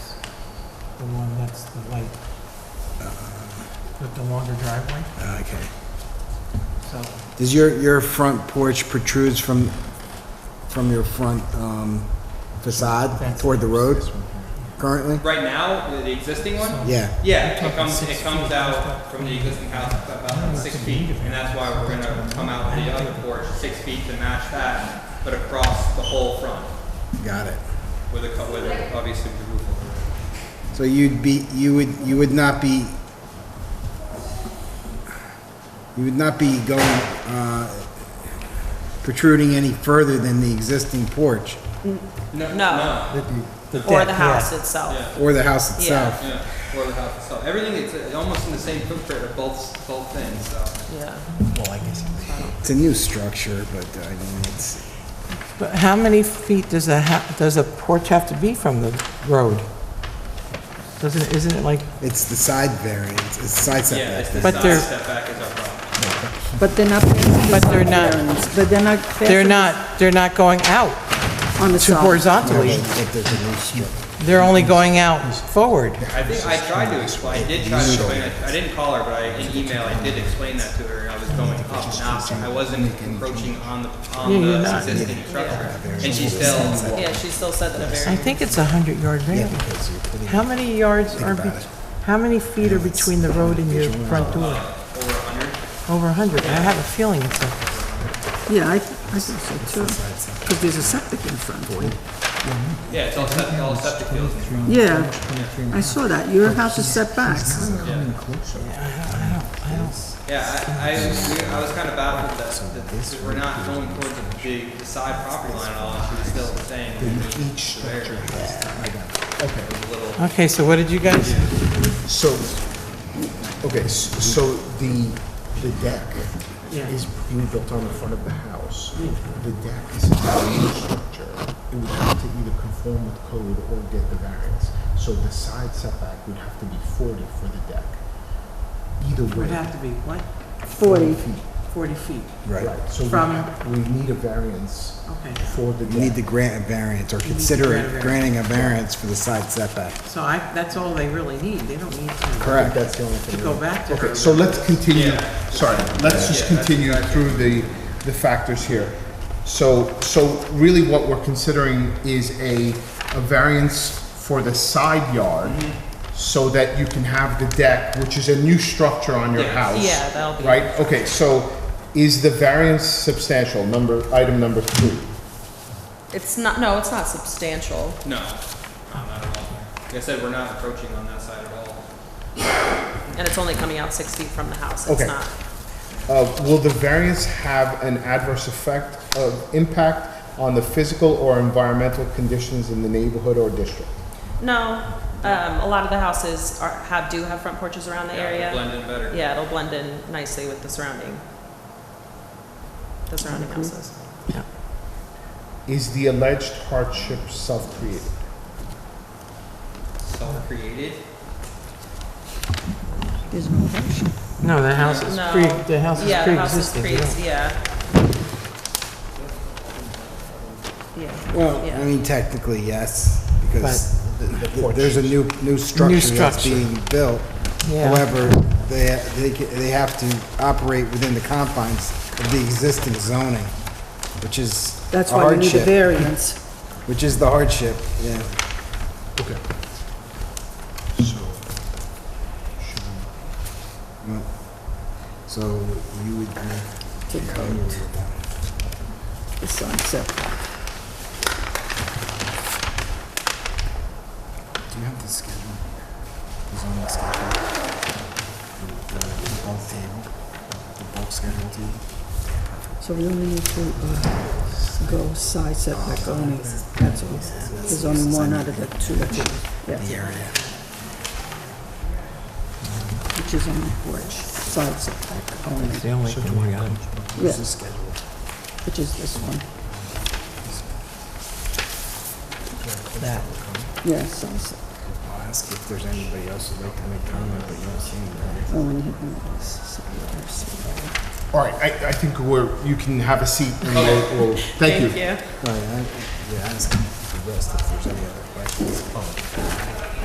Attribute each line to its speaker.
Speaker 1: the one that's the light, with the longer driveway,
Speaker 2: Okay.
Speaker 1: so.
Speaker 2: Does your, your front porch protrudes from, from your front um, facade
Speaker 1: That's-
Speaker 2: toward the road currently?
Speaker 3: Right now, the existing one?
Speaker 1: so-
Speaker 2: Yeah.
Speaker 3: Yeah,
Speaker 1: You're
Speaker 3: it
Speaker 1: talking
Speaker 3: comes,
Speaker 1: six
Speaker 3: it comes
Speaker 1: feet.
Speaker 3: out from the existing house about six feet, and that's why we're gonna come out with the other porch, six feet to match that, but across the whole front,
Speaker 2: Got it.
Speaker 3: with a, co- with a- obviously with the roof over.
Speaker 2: So you'd be, you would, you would not be, you would not be going, uh, protruding any further than the existing porch
Speaker 3: No.
Speaker 4: No.
Speaker 3: No,
Speaker 4: Or
Speaker 1: deck,
Speaker 4: the
Speaker 1: yeah.
Speaker 4: house itself.
Speaker 3: yeah,
Speaker 2: or the house itself?
Speaker 3: yeah, or the house itself. Everything, it's uh, almost in the same footprint of both, both things, so.
Speaker 4: Yeah.
Speaker 2: It's a new structure, but I don't, it's,
Speaker 5: But how many feet does a, ha- does a porch have to be from the road? Doesn't, it isn't it like,
Speaker 2: it's the side variance, it's side
Speaker 3: Yeah, it's
Speaker 2: setback.
Speaker 3: the
Speaker 5: But
Speaker 3: side
Speaker 5: they're-
Speaker 3: setback is our problem.
Speaker 6: But they're not passing the
Speaker 5: But they're
Speaker 6: side
Speaker 5: not-
Speaker 6: variance, But they're not.
Speaker 5: they're
Speaker 6: passing
Speaker 5: not, they're not going out
Speaker 6: On the
Speaker 5: to
Speaker 6: side.
Speaker 5: horizontally,
Speaker 2: But there's a new structure.
Speaker 5: they're only going out forward.
Speaker 3: I think I tried to explain, I did try to explain, I I didn't call her, but I, in email, I did explain that to her, I was going up, not, I wasn't encroaching on the, on the existing structure. And she still,
Speaker 4: Yeah, she still said that a
Speaker 5: I
Speaker 4: very.
Speaker 5: think it's a 100-yard variance. How many yards are, be- how many feet are between the road and your front door?
Speaker 3: over a hundred,
Speaker 5: Over 100, I have a feeling it's a,
Speaker 6: Yeah, I, I think so too. Because there's a septic in front of it.
Speaker 3: yeah, it's all septic, all septic fields.
Speaker 6: Yeah, I saw that. Your house is set back.
Speaker 3: Yeah, I, I, we- I was kind of baffled that, that we're not going towards the, the side property line at all, and she was still saying. we need the variance. It was a little-
Speaker 5: okay, so what did you guys,
Speaker 7: So, okay, s- so the, the deck is being built on the front of the house. The deck is a new structure. It would have to either conform with code or get the variance. So the side setback would have to be forty for the deck. Either way.
Speaker 5: would have to be, what,
Speaker 6: Forty.
Speaker 5: 40 feet?
Speaker 2: Right.
Speaker 7: So we
Speaker 5: From-
Speaker 7: ha- we need a variance
Speaker 5: Okay,
Speaker 7: for the deck.
Speaker 2: You need to grant a variance or consider
Speaker 5: grant a
Speaker 2: it
Speaker 5: variance.
Speaker 2: granting a variance for the side setback.
Speaker 5: so I, that's all they really need, they don't need to
Speaker 2: Correct.
Speaker 7: That's the only thing.
Speaker 5: to go back to
Speaker 7: Okay,
Speaker 5: her.
Speaker 7: so let's continue,
Speaker 3: Yeah.
Speaker 7: sorry, let's just
Speaker 3: Yeah, that's
Speaker 7: continue through the, the factors here. So, so really what we're considering is a, a variance for the side yard
Speaker 3: Mm-hmm.
Speaker 7: so that you can have the deck, which is a new structure on your
Speaker 3: Yeah.
Speaker 7: house.
Speaker 4: Yeah, that'll be-
Speaker 7: Right, okay, so is the variance substantial, number, item number two?
Speaker 4: It's not, no, it's not substantial.
Speaker 3: No, no, not at all. Like I said, we're not approaching on that side at all.
Speaker 4: And it's only coming out six feet from the house. It's
Speaker 7: Okay.
Speaker 4: not.
Speaker 7: Uh, will the variance have an adverse effect of impact on the physical or environmental conditions in the neighborhood or district?
Speaker 4: No, um, a lot of the houses are, have, do have front porches around the
Speaker 3: Yeah,
Speaker 4: area.
Speaker 3: Blend in better.
Speaker 4: Yeah, it'll blend in nicely with the surrounding, the surrounding houses.
Speaker 7: Is the alleged hardship self-created?
Speaker 3: Self-created.
Speaker 6: There's no hardship.
Speaker 5: No, the house is
Speaker 4: No.
Speaker 5: pre, the house is
Speaker 4: Yeah, the house is
Speaker 5: pre-existing.
Speaker 4: pre,
Speaker 5: yeah.
Speaker 4: yeah. Yeah.
Speaker 2: Well,
Speaker 4: Yeah.
Speaker 2: I mean, technically, yes, because th- th- there's a new, new structure that's
Speaker 5: structure.
Speaker 2: being built.
Speaker 5: Yeah.
Speaker 2: However, they, they, ca- they have to operate within the confines of the existing zoning, which is a
Speaker 6: That's why you need a
Speaker 2: hardship,
Speaker 6: variance.
Speaker 2: which is the hardship, yeah.
Speaker 7: Okay. So, should we?
Speaker 2: Well, So you would.
Speaker 6: To code. The side setback.
Speaker 2: Do you have the schedule? The zoning schedule? The- The the bulk table? The bulk schedule table?
Speaker 6: So we only need to uh, go side setback only. That's all. There's only one out of the two.
Speaker 2: The
Speaker 6: Yeah,
Speaker 2: area.
Speaker 6: which is on the porch, side setback only,
Speaker 5: It's the only thing we got.
Speaker 2: Where's the schedule?
Speaker 6: which is this one.
Speaker 5: That.
Speaker 6: Yeah, side setback.
Speaker 2: I'll ask if there's anybody else who'd like to make comment, but you don't see anybody.
Speaker 6: Oh, and you have this side setback.
Speaker 7: All right, I, I think we're, you can have a seat and we'll, we'll, thank you.
Speaker 4: Thank you.
Speaker 2: Oh, yeah, I- yeah, ask the rest if there's any other questions.